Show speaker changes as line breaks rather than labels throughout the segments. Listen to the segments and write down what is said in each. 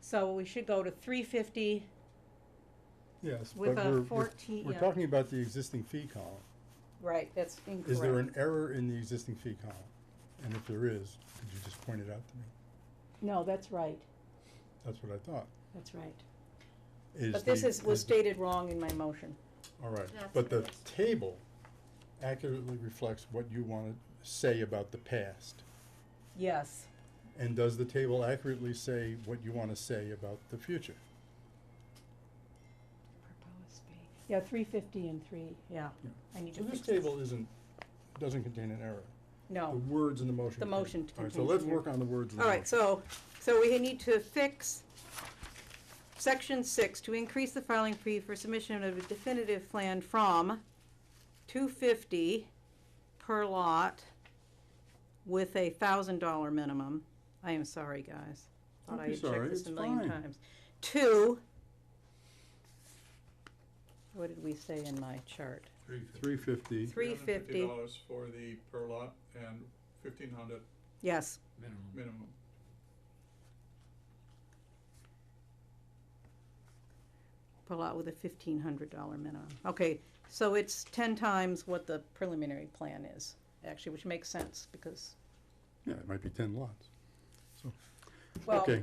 So we should go to three fifty
Yes, but
with
we're,
a
we're,
fourteen,
we're
yeah,
talking about the existing fee column.
right, that's incorrect.
Is there an error in the existing fee column? And if there is, could you just point it out to me?
No, that's right,
That's what I thought.
that's right.
Is
But this
the-
is, was
the-
stated wrong in my motion.
All right,
That's
but the
what it is.
table accurately reflects what you wanna say about the past.
Yes,
And does the table accurately say what you wanna say about the future?
Proposed fee.
yeah, three fifty and three, yeah.
Yeah.
I need to
So this
fix this.
table isn't, doesn't contain an error. The
No.
words in the motion.
Oh. The
contain-
motion
All right, so
contains
let's
an error.
work on the words in the
All
motion.
right, so, so we need to fix section six, to increase the filing fee for submission of a definitive plan from two fifty per lot with a thousand dollar minimum. I am sorry, guys. Thought
Don't
I
be
had
sorry,
checked this
it's
a million
fine.
times. To, what did we say in my chart?
Three fifty.
Three fifty,
dollars for the per lot and fifteen hundred
yes,
minimum.
minimum.
per lot with a fifteen hundred dollar minimum. Okay, so it's ten times what the preliminary plan is, actually, which makes sense, because,
Yeah, it might be ten lots.
well,
Okay,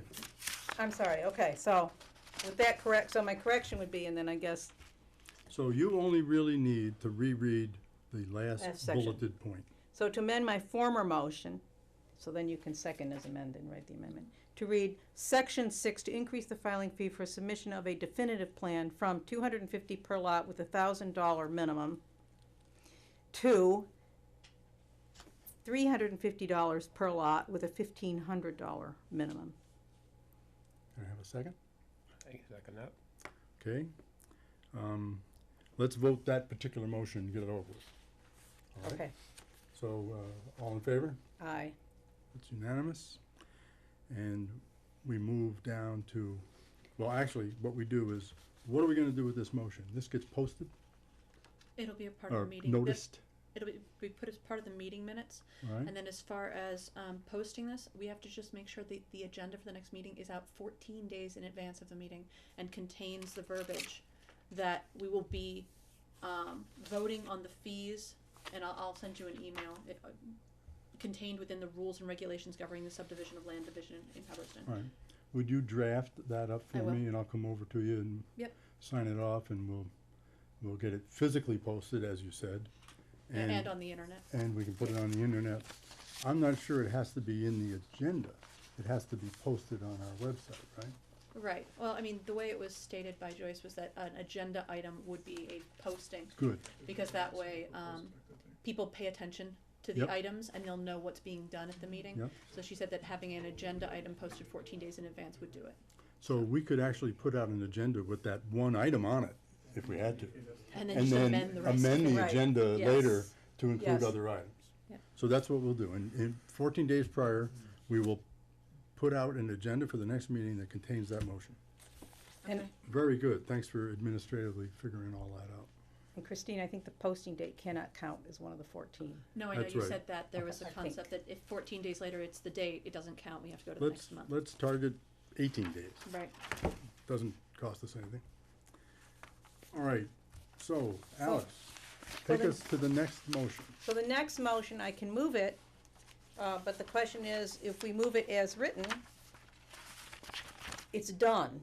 I'm sorry, okay, so, with that correct, so my correction would be, and then I guess,
so you only really need to reread the last
Last section.
bulleted point.
so to amend my former motion, so then you can second as amended, write the amendment, to read section six, to increase the filing fee for submission of a definitive plan from two hundred and fifty per lot with a thousand dollar minimum to three hundred and fifty dollars per lot with a fifteen hundred dollar minimum.
Can I have a second?
I can second that.
Okay. Um, Let's vote that particular motion and get it over with. All right?
Okay,
So, uh, all in favor?
aye.
It's unanimous. And we move down to, well, actually, what we do is, what are we gonna do with this motion? This gets posted
It'll be a part of the
or
meeting. This-
noticed,
It'll be, be put as part of the meeting minutes,
right?
and then as far as, um, posting this, we have to just make sure the, the agenda for the next meeting is out fourteen days in advance of the meeting and contains the verbiage that we will be, um, voting on the fees, and I'll, I'll send you an email, it, uh, contained within the rules and regulations governing the subdivision of land division in Hubbardston.
All right. Would you draft that up
I
for
will.
me and I'll come over to you and
Yep.
sign it off and we'll, we'll get it physically posted, as you said.
And on the internet,
and we can put it on the internet. I'm not sure it has to be in the agenda. It has to be posted on our website, right?
right, well, I mean, the way it was stated by Joyce was that an agenda item would be a posting,
Good,
Because that way, um, people pay attention to the
Yep. Mm-hmm.
items and they'll know what's being done at the meeting.
Yep.
So she said that having an agenda item posted fourteen days in advance would do it.
so we could actually put out an agenda with that one item on it, if we had to.
And then
And
just
then
amend the rest.
amend the
Right.
agenda later
Yes.
to
Yes.
include other items.
Yep.
So that's what we'll do, and, and fourteen days prior, we will put out an agenda for the next meeting that contains that motion.
And
Okay.
Very good, thanks for administratively figuring all that out.
and Christine, I think the posting date cannot count as one of the fourteen.
No, I know
That's
you
right.
said that, there was a
I think.
concept that if fourteen days later it's the date, it doesn't count, we have to go to the
Let's,
next month.
let's target eighteen days.
Right,
doesn't cost us anything. All right, so Alex, take
then-
us to the next motion.
So the next motion, I can move it, uh, but the question is, if we move it as written, it's done.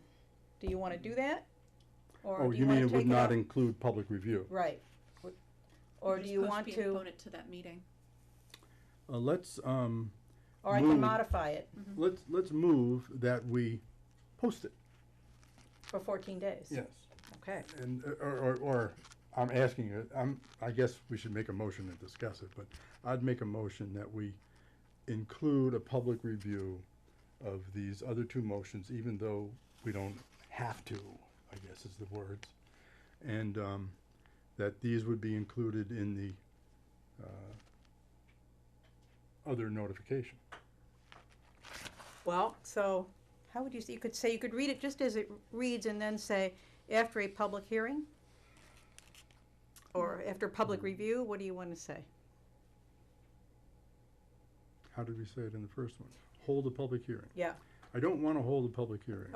Do you wanna do that? Or
Oh,
do
you mean
wanna
it would
take
not
out?
include public review?
Right. Or do
Just
you want to,
postpone it to that meeting.
Uh, let's, um,
or I can
move.
modify it
let's, let's move that we post it.
for fourteen days? Okay.
And, uh, or, or, or, I'm asking you, I'm, I guess we should make a motion and discuss it, but I'd make a motion that we include a public review of these other two motions, even though we don't have to, I guess is the words. And, um, that these would be included in the, uh, other notification.
Well, so, how would you, say you could say, you could read it just as it reads and then say, after a public hearing? Or after
Mm.
public review, what do you wanna say?
How did we say it in the first one? Hold a public hearing.
Yeah,
I don't wanna hold a public hearing.